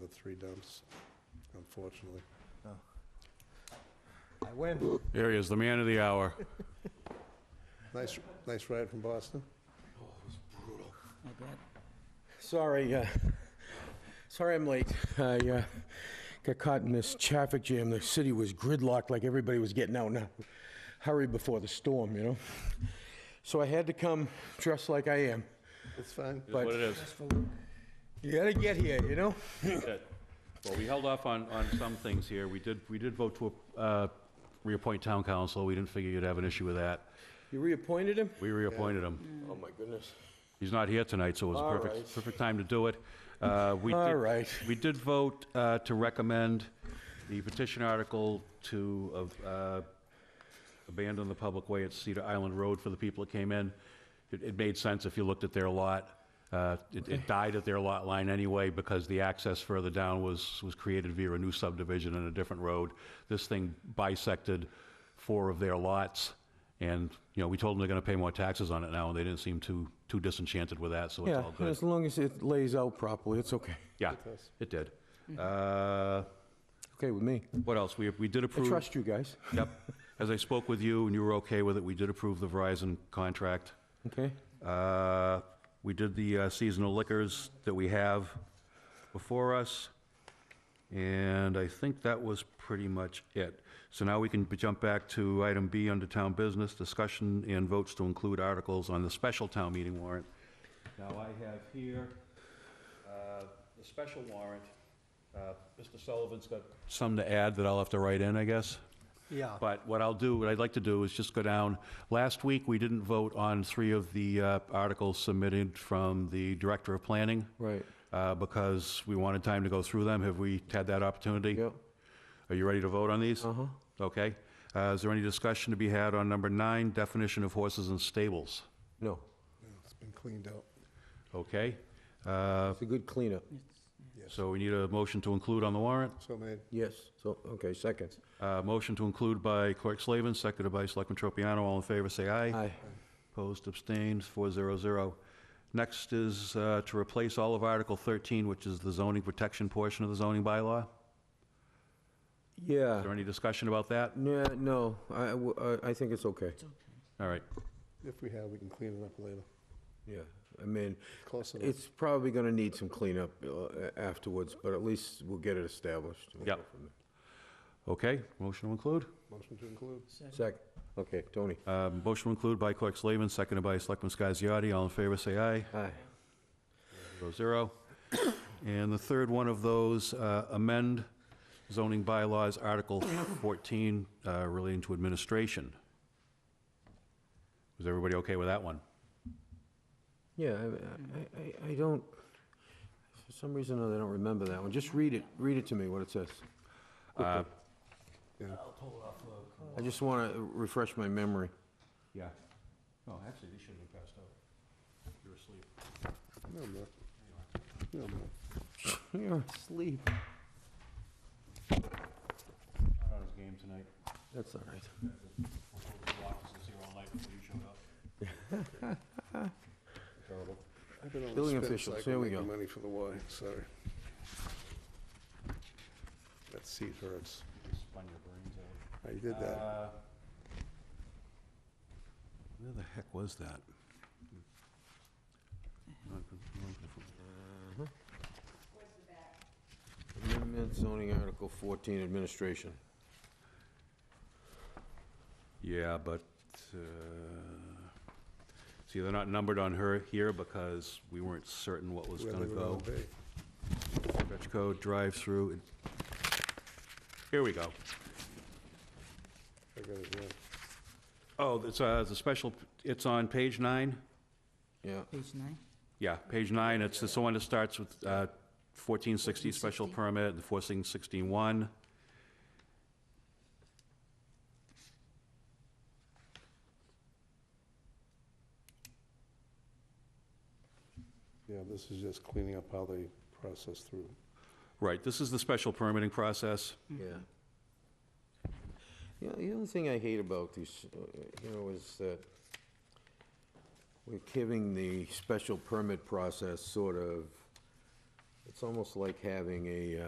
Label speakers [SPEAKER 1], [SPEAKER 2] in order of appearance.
[SPEAKER 1] with three dumps, unfortunately.
[SPEAKER 2] I win.
[SPEAKER 3] There he is, the man of the hour.
[SPEAKER 1] Nice, nice ride from Boston.
[SPEAKER 2] Sorry, uh, sorry I'm late. I uh, got caught in this traffic jam. The city was gridlocked like everybody was getting out in a hurry before the storm, you know? So I had to come dressed like I am.
[SPEAKER 1] It's fine.
[SPEAKER 3] Is What it is.
[SPEAKER 2] You gotta get here, you know?
[SPEAKER 3] Good. Well, we held off on, on some things here. We did, we did vote to uh, reappoint town council. We didn't figure you'd have an issue with that.
[SPEAKER 2] You reappointed him?
[SPEAKER 3] We reappointed him.
[SPEAKER 2] Oh, my goodness.
[SPEAKER 3] He's not here tonight, so it was
[SPEAKER 2] All
[SPEAKER 3] a perfect,
[SPEAKER 2] right.
[SPEAKER 3] perfect time to do it. Uh, we
[SPEAKER 2] All
[SPEAKER 3] did-
[SPEAKER 2] right.
[SPEAKER 3] We did vote uh, to recommend the petition article to uh, abandon the public way at Cedar Island Road for the people that came in. It, it made sense if you looked at their lot. Uh, It, it died at their lot line anyway because the access further down was, was created via a new subdivision and a different road. This thing bisected four of their lots, and, you know, we told them they're gonna pay more taxes on it now, and they didn't seem too, too disenchanted with that, so it's
[SPEAKER 2] Yeah,
[SPEAKER 3] all good.
[SPEAKER 2] as long as it lays out properly, it's okay.
[SPEAKER 3] Yeah, it did. Uh,
[SPEAKER 2] Okay with me.
[SPEAKER 3] What else? We, we did
[SPEAKER 2] I
[SPEAKER 3] approve.
[SPEAKER 2] trust you guys,
[SPEAKER 3] Yep. As I spoke with you and you were okay with it, we did approve the Verizon contract.
[SPEAKER 2] okay?
[SPEAKER 3] Uh, We did the uh, seasonal liquors that we have before us. And I think that was pretty much it. So now we can b- jump back to item B under town business, discussion and votes to include articles on the special town meeting warrant. Now I have here uh, the special warrant. Uh, Mr. Sullivan's got some to add that I'll have to write in, I guess.
[SPEAKER 4] Yeah,
[SPEAKER 3] But what I'll do, what I'd like to do is just go down, last week, we didn't vote on three of the uh, articles submitted from the Director of Planning.
[SPEAKER 2] Right.
[SPEAKER 3] uh, Because we wanted time to go through them. Have we had that opportunity?
[SPEAKER 2] Yep.
[SPEAKER 3] Are you ready to vote on these? Uh-huh. Okay. Uh, Is there any discussion to be had on number nine, definition of horses and stables?
[SPEAKER 2] No,
[SPEAKER 1] It's been cleaned out.
[SPEAKER 3] Okay. Uh,
[SPEAKER 2] it's a good cleanup.
[SPEAKER 3] So we need a motion to include on the warrant.
[SPEAKER 1] So made.
[SPEAKER 2] Yes, so, okay, second.
[SPEAKER 3] Uh, Motion to include by Clerk Slavin, seconded by Selectman Tropiano. All in favor, say aye.
[SPEAKER 2] Aye.
[SPEAKER 3] Opposed, abstained, 400. Next is uh, to replace all of Article 13, which is the zoning protection portion of the zoning bylaw.
[SPEAKER 2] Yeah.
[SPEAKER 3] Is there any discussion about that?
[SPEAKER 2] Yeah, no, I- I, w- I- I think it's okay.
[SPEAKER 3] All right.
[SPEAKER 1] If we have, we can clean it up later.
[SPEAKER 2] Yeah, I mean,
[SPEAKER 1] Close enough.
[SPEAKER 2] it's probably gonna need some cleanup uh, afterwards, but at least we'll get it established. We'll go
[SPEAKER 3] Yep.
[SPEAKER 2] from
[SPEAKER 3] Okay, motion to include.
[SPEAKER 1] Motion to include.
[SPEAKER 2] there. Second, okay, Tony.
[SPEAKER 3] Um, Motion to include by Clerk Slavin, seconded by Selectman Scasiotti. All in favor, say aye.
[SPEAKER 2] Aye.
[SPEAKER 3] 400. And the third one of those, uh, amend zoning bylaws, Article 14, uh, relating to administration. Was everybody okay with that one?
[SPEAKER 2] Yeah, I- I, I, I don't, for some reason or other, I don't remember that one. Just read it, read it to me, what it says.
[SPEAKER 3] Uh,
[SPEAKER 2] I just wanna refresh my memory.
[SPEAKER 3] Yeah. No, actually, they shouldn't have passed out. You're asleep.
[SPEAKER 1] No, I'm not. No, I'm not.
[SPEAKER 2] You're asleep.
[SPEAKER 3] Not on his game tonight.
[SPEAKER 2] That's all right.
[SPEAKER 3] The office is here all night before you showed up.
[SPEAKER 1] Terrible. I've been on a
[SPEAKER 2] Building
[SPEAKER 1] spin
[SPEAKER 2] officials,
[SPEAKER 1] cycle
[SPEAKER 2] here we
[SPEAKER 1] making
[SPEAKER 2] go.
[SPEAKER 1] Money for the Y, sorry. That seat hurts.
[SPEAKER 3] You just spun your brains out.
[SPEAKER 1] I did that.
[SPEAKER 3] Uh, Where the heck was that?
[SPEAKER 2] Amendment zoning article 14, administration.
[SPEAKER 3] Yeah, but, uh, see, they're not numbered on her here because we weren't certain what was
[SPEAKER 1] Where
[SPEAKER 3] gonna
[SPEAKER 1] they were all
[SPEAKER 3] go.
[SPEAKER 1] day.
[SPEAKER 3] Stretch code, drive-through. Here we go.
[SPEAKER 1] I got it, yeah.
[SPEAKER 3] Oh, it's, uh, the special, it's on page nine?
[SPEAKER 2] Yeah,
[SPEAKER 4] page nine.
[SPEAKER 3] Yeah, page nine, it's the one that starts with uh, 1460 special permit, and 1461.
[SPEAKER 1] Yeah, this is just cleaning up how they process through.
[SPEAKER 3] Right, this is the special permitting process.
[SPEAKER 2] yeah. You know, the only thing I hate about these, uh, you know, is that we're giving the special permit process sort of It's almost like having a, uh,